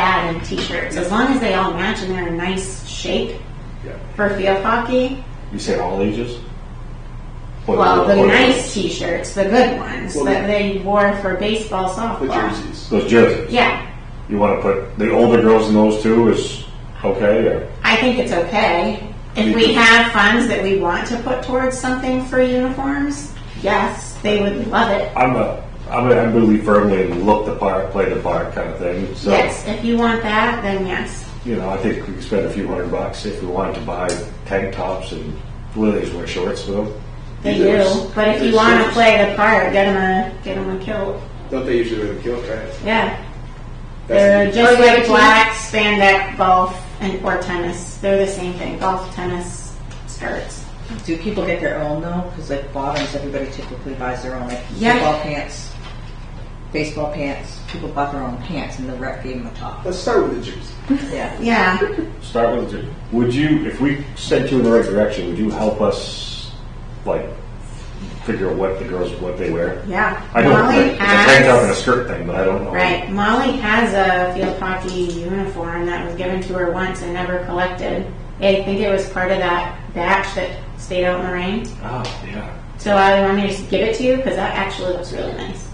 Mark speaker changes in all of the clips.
Speaker 1: and t-shirts. As long as they all match and they're in nice shape
Speaker 2: Yeah.
Speaker 1: for field hockey.
Speaker 2: You said all ages? What-
Speaker 1: Well, the
Speaker 2: what-
Speaker 1: nice t-shirts, the good ones
Speaker 2: Well,
Speaker 1: that they wore for baseball,
Speaker 3: The
Speaker 1: softball.
Speaker 3: jerseys.
Speaker 2: Those jerseys.
Speaker 1: Yeah,
Speaker 2: You want to put the older girls in those too is okay or?
Speaker 1: I think it's okay. If we have funds that we want to put towards something for uniforms, yes, they would love it.
Speaker 2: I'm a, I'm a, I believe firmly in look the part, play the part kind of thing. So,
Speaker 1: Yes, if you want that, then yes.
Speaker 2: you know, I think we could spend a few hundred bucks if we wanted to buy tank tops and lilies wear shorts with them.
Speaker 1: They
Speaker 3: Yes.
Speaker 1: do. But if you
Speaker 3: Yes,
Speaker 1: want to
Speaker 3: yes.
Speaker 1: play the part, get them a get 'em a kilt.
Speaker 3: Don't they usually wear the kilt, right?
Speaker 1: Yeah,
Speaker 3: That's-
Speaker 1: they're just like black spandex golf and or tennis. They're the same thing. Golf, tennis, skirts.
Speaker 4: Do people get their own though? Because like bottoms, everybody typically buys their own, like
Speaker 1: Yeah.
Speaker 4: football pants, baseball pants. People bought their own pants, and the rep gave them a top.
Speaker 3: Let's start with the jerseys.
Speaker 4: Yeah.
Speaker 1: Yeah,
Speaker 2: Start with, the- would you, if we sent you in the right direction, would you help us, like, figure out what the girls, what they wear?
Speaker 1: yeah.
Speaker 2: I know
Speaker 1: Molly
Speaker 2: it's a tank top and a
Speaker 1: has
Speaker 2: skirt thing, but I don't know.
Speaker 1: right. Molly has a field hockey uniform that was given to her once and never collected. I think it was part of that batch that stayed out in the rain.
Speaker 2: Oh, yeah.
Speaker 1: So I want me to just give it to you because that actually looks really nice.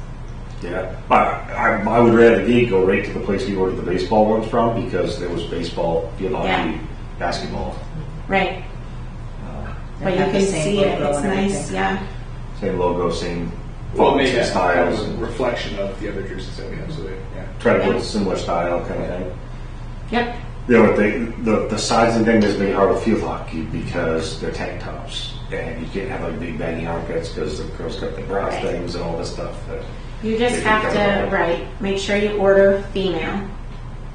Speaker 2: Yeah, but I, I would rather the go right to the place we ordered the baseball ones from because there was baseball, field hockey,
Speaker 1: Yeah.
Speaker 2: basketball,
Speaker 1: Right.
Speaker 4: They
Speaker 1: But you
Speaker 4: have the
Speaker 1: can
Speaker 4: same
Speaker 1: see it.
Speaker 4: logo
Speaker 1: It's
Speaker 4: and
Speaker 1: nice.
Speaker 4: everything.
Speaker 1: Yeah.
Speaker 2: same logo, same
Speaker 3: Well,
Speaker 2: fonts
Speaker 3: maybe
Speaker 2: and
Speaker 3: that's kind
Speaker 2: styles,
Speaker 3: of a
Speaker 2: and
Speaker 3: reflection of the other jerseys that we have. So they, yeah.
Speaker 2: try to get a similar style kind of thing.
Speaker 1: Yep.
Speaker 2: Yeah, but they, the the sizing thing is made hard with field hockey because they're tank tops and you can't have like big baggy armpits because the girls got the bra
Speaker 1: Right.
Speaker 2: things and all this stuff. That,
Speaker 1: You just
Speaker 2: Maybe
Speaker 1: have
Speaker 2: cover
Speaker 1: to
Speaker 2: it.
Speaker 1: right. Make sure you order female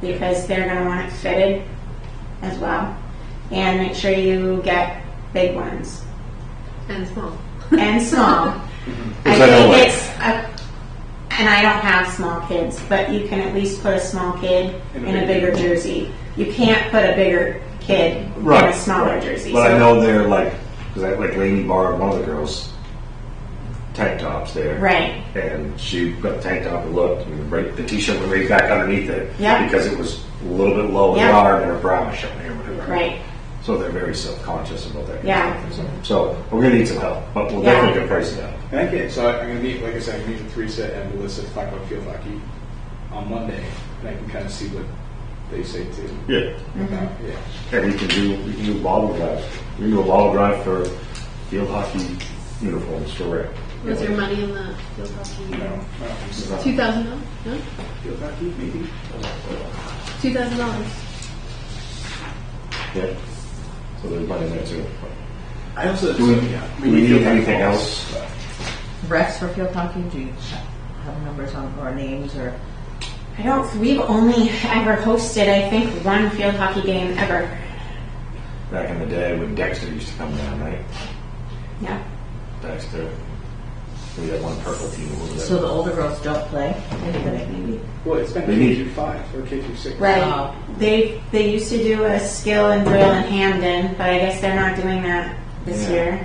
Speaker 1: because they're going to want it fitted as well, and make sure you get big ones
Speaker 5: And small.
Speaker 1: and small. I
Speaker 2: Because I know,
Speaker 1: think
Speaker 2: like-
Speaker 1: it's a, and I don't have small kids, but you can at least put a small kid in
Speaker 3: In
Speaker 1: a,
Speaker 3: a
Speaker 1: bigger
Speaker 3: bigger-
Speaker 1: jersey. You can't put a bigger kid in a smaller
Speaker 2: right.
Speaker 1: jersey.
Speaker 2: But
Speaker 1: so-
Speaker 2: I know they're like because I like Lainey borrowed one of the girls tank tops there.
Speaker 1: Right.
Speaker 2: and she got the tank top and looked, and right, the t-shirt went right back underneath it.
Speaker 1: Yeah.
Speaker 2: Because it was a little bit low in
Speaker 1: Yeah.
Speaker 2: the arm and her bra was showing or whatever.
Speaker 1: Right.
Speaker 2: So they're very self-conscious about that. kind of
Speaker 1: Yeah.
Speaker 2: thing. So so we're gonna need some help, but we'll
Speaker 1: Yeah.
Speaker 2: definitely get prices down.
Speaker 3: And I can, so I- I'm going to meet, like I said, I'm going to meet with Teresa and Melissa to talk about field hockey on Monday, and I can kind of see what they say too.
Speaker 2: Yeah.
Speaker 3: About, yeah.
Speaker 2: And we can do we can do a bottle drive. We can do a bottle drive for field hockey uniforms for rec.
Speaker 5: Was there money in the field hockey?
Speaker 3: No, I don't think so.
Speaker 5: Two thousand dollars? No,
Speaker 3: Field hockey, maybe.
Speaker 5: two thousand dollars.
Speaker 2: Yeah. So there's money there too.
Speaker 3: I also
Speaker 2: Do we- do we
Speaker 3: field
Speaker 2: need
Speaker 3: hockey
Speaker 2: anything
Speaker 3: balls,
Speaker 2: else?
Speaker 3: but-
Speaker 4: Refs for field hockey. Do you have numbers on or names or?
Speaker 1: I don't. We've only ever hosted, I think, one field hockey game ever.
Speaker 2: Back in the day when Dexter used to come down, right?
Speaker 1: Yeah.
Speaker 2: Dexter. We had one purple team. what was that?
Speaker 4: So the older girls don't play.
Speaker 3: Well, it's been
Speaker 2: They
Speaker 3: K
Speaker 2: need-
Speaker 3: through five or K through six.
Speaker 1: Right.
Speaker 4: Wow.
Speaker 1: They they used to do a skill and drill in Hamden, but I guess they're not doing that this
Speaker 2: Yeah.
Speaker 1: year.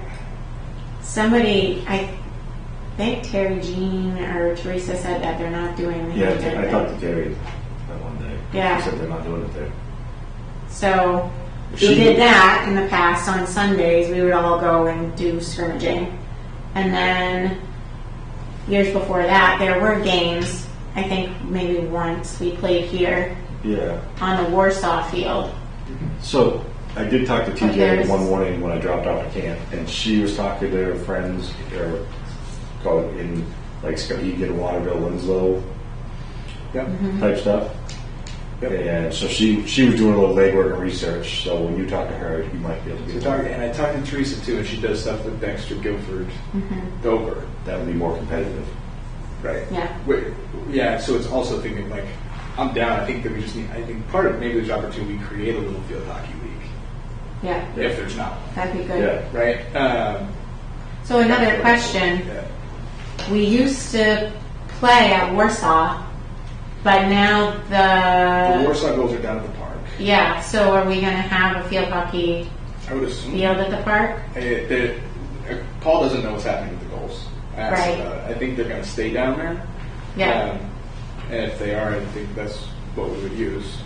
Speaker 1: Somebody, I think Terry Jean or Teresa said that they're not doing the
Speaker 2: Yeah,
Speaker 1: Hamden
Speaker 2: I
Speaker 1: thing.
Speaker 2: talked to Terry that one day.
Speaker 1: Yeah.
Speaker 2: She said they're not doing it there.
Speaker 1: So we
Speaker 2: She-
Speaker 1: did that in the past on Sundays. We would all go and do scrimmaging, and then years before that, there were games. I think maybe once we played here
Speaker 2: Yeah.
Speaker 1: on the Warsaw field.
Speaker 2: So I did talk to
Speaker 1: But there's-
Speaker 2: TJ one morning when I dropped off at camp, and she was talking to her friends, or call it in like Skowhegan, Waterville, Winslow
Speaker 3: Yep.
Speaker 2: type stuff.
Speaker 3: Yep.
Speaker 2: And so she she was doing a little legwork and research. So when you talk to her, you might be able to
Speaker 3: So
Speaker 2: get
Speaker 3: talk, and I talked to Teresa too, and she does stuff with Dexter, Guilford, Dover.
Speaker 2: that would be more competitive.
Speaker 3: Right.
Speaker 1: Yeah.
Speaker 3: Wait, yeah. So it's also thinking like, I'm down. I think that we just need. I think part of maybe there's opportunity. We create a little field hockey league
Speaker 1: Yeah,
Speaker 3: if there's not, one,
Speaker 1: that'd be good.
Speaker 2: Yeah.
Speaker 3: right? Um,
Speaker 1: So another question.
Speaker 3: yeah.
Speaker 1: We used to play at Warsaw, but now
Speaker 3: The
Speaker 1: the
Speaker 3: Warsaw goals are down at the park.
Speaker 1: yeah. So are we gonna have a field hockey
Speaker 3: I would assume.
Speaker 1: field at the park?
Speaker 3: Uh, the- uh, Paul doesn't know what's happening with the goals. I asked
Speaker 1: Right.
Speaker 3: about it. I think they're going to stay down there.
Speaker 1: Yeah.
Speaker 3: Um, and if they are, I think that's what we would use.